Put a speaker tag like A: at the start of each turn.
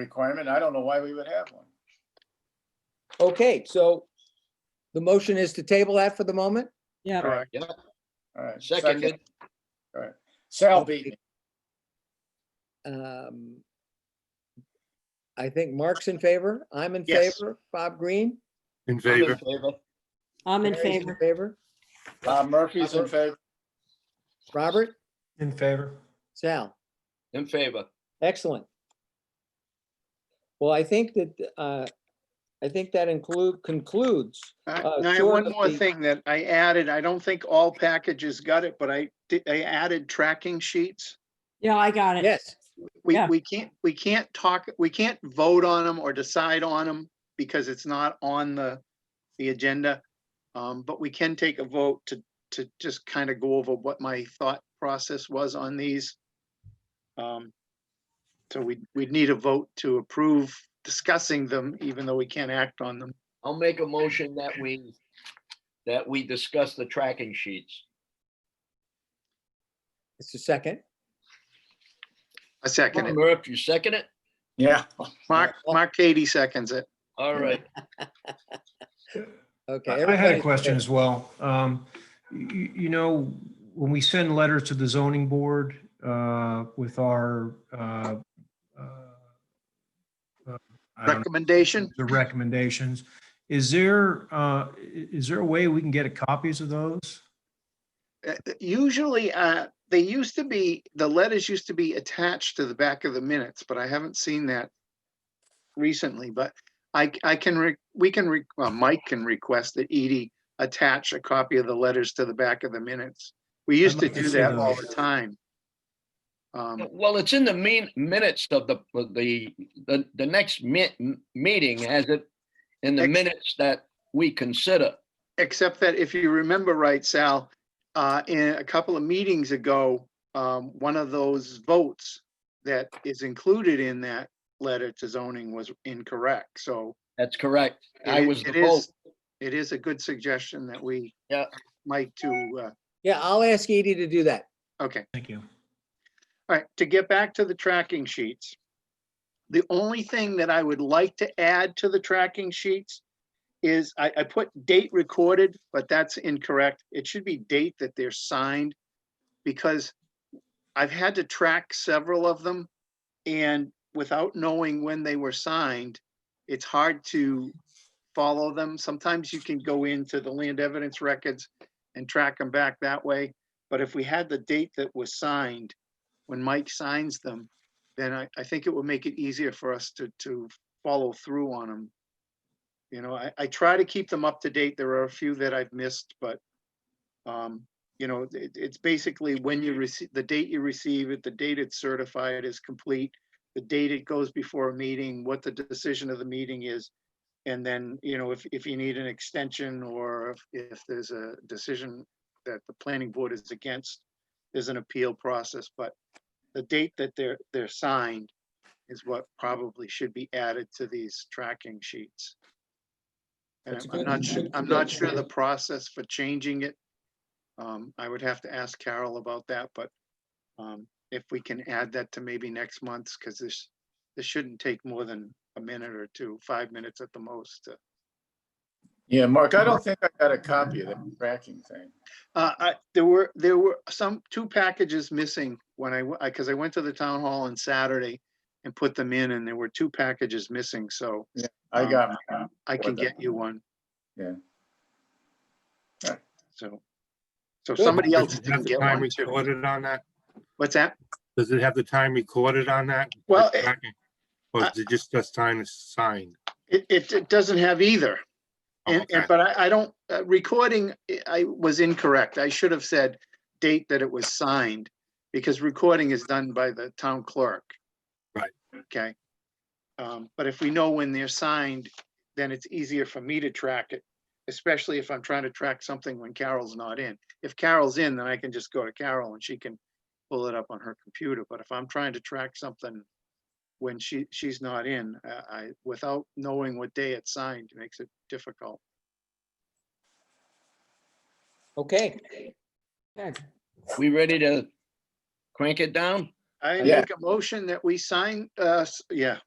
A: requirement. I don't know why we would have one.
B: Okay, so the motion is to table that for the moment?
C: Yeah,
A: Correct.
D: Yeah,
A: All right.
D: seconded.
A: Sal beat me.
B: Um, I think Mark's in favor. I'm in
A: Yes.
B: favor. Bob Green?
E: In
D: I'm in
E: favor,
D: favor.
C: I'm in
B: Mary's
C: favor.
B: Favor.
A: Bob Murphy's in favor.
B: Robert?
F: In favor.
B: Sal?
D: In favor.
B: Excellent. Well, I think that, uh, I think that include, concludes.
G: Uh,
B: Uh,
G: Now, I have
B: sure,
G: one
B: but
G: more
B: the-
G: thing that I added, I don't think all packages got it, but I, di- I added tracking sheets.
C: Yeah, I got it.
B: Yes,
G: We,
C: Yeah.
G: we can't, we can't talk, we can't vote on them or decide on them because it's not on the, the agenda. Um, but we can take a vote to, to just kind of go over what my thought process was on these. Um, So we, we'd need a vote to approve discussing them, even though we can't act on them.
D: I'll make a motion that we, that we discuss the tracking sheets.
B: it's a second.
G: A second, it.
D: Murph, you second it?
A: Yeah.
G: Mark, Mark Katie seconds it.
D: All right.
B: Okay.
F: I I had a
B: everybody's-
F: question as well. Um, you, you know, when we send letters to the zoning board, uh, with our, uh, uh, uh, I don't know,
G: Recommendation?
F: The recommendations, is there, uh, i- is there a way we can get copies of those?
G: Uh, Usually, uh, they used to be, the letters used to be attached to the back of the minutes, but I haven't seen that recently, but I, c- I can, re- we can, re- well, Mike can request that Edie attach a copy of the letters to the back of the minutes. We used to
F: like to
G: do
F: see
G: that all the
F: those.
G: time. Um,
D: Well, it's in the mean minutes of the, of the, the, the next mi- m- meeting has it in the
G: Ex-
D: minutes that we consider.
G: Except that if you remember right, Sal, uh, in a couple of meetings ago, um, one of those votes that is included in that letter to zoning was incorrect, so.
D: That's correct. I
G: it-
D: was the
G: it
D: vote.
G: is- It is a good suggestion that we.
D: Yeah.
G: Mike to,
B: Yeah, I'll ask Edie to do that.
G: uh, okay.
F: Thank you.
G: All right, to get back to the tracking sheets. The only thing that I would like to add to the tracking sheets is I, I put date recorded, but that's incorrect. It should be date that they're signed. Because I've had to track several of them and without knowing when they were signed, it's hard to follow them. Sometimes you can go into the land evidence records and track them back that way. But if we had the date that was signed, when Mike signs them, then I, I think it will make it easier for us to, to follow through on them. You know, I, I try to keep them up to date. There are a few that I've missed, but, um, you know, it, it's basically when you receive, the date you receive it, the date it's certified is complete, the date it goes before a meeting, what the decision of the meeting is. And then, you know, if, if you need an extension or if, if there's a decision that the planning board is against, there's an appeal process, but the date that they're, they're signed is what probably should be added to these tracking sheets. And
B: That's a
G: I'm
B: good-
G: not sure,
B: that's a
G: I'm
B: good
G: not sure the
B: point.
G: process for changing it. Um, I would have to ask Carol about that, but, um, if we can add that to maybe next month's, because this, this shouldn't take more than a minute or two, five minutes at the most to
A: Yeah, Mark, I don't think I got a copy of the tracking thing.
G: Uh, I, there were, there were some, two packages missing when I, w- I, cause I went to the town hall on Saturday and put them in and there were two packages missing, so
A: I
G: Um,
A: got, mine.
G: I can
A: Wonderful.
G: get you one.
A: Yeah. Alright.
G: So, so
B: Good.
G: somebody
E: Does
G: else
E: it have
G: didn't
E: the
G: get
E: time
G: one too.
E: Recorded on that?
G: What's that?
E: Does it have the time recorded on that?
G: Well,
E: The
G: it-
E: tracking? Or is it just us time is signed?
G: It, it, it doesn't have either.
E: Oh,
G: And, and,
E: okay.
G: but I, I don't, uh, recording, I- I was incorrect. I should have said date that it was signed because recording is done by the town clerk.
E: Right.
G: Okay. Um, but if we know when they're signed, then it's easier for me to track it, especially if I'm trying to track something when Carol's not in. If Carol's in, then I can just go to Carol and she can pull it up on her computer. But if I'm trying to track something when she, she's not in, uh, I, without knowing what day it's signed, makes it difficult.
B: Okay,
D: We ready to crank it down?
G: I
A: Yeah.
G: make a motion that we sign, uh, s- yeah,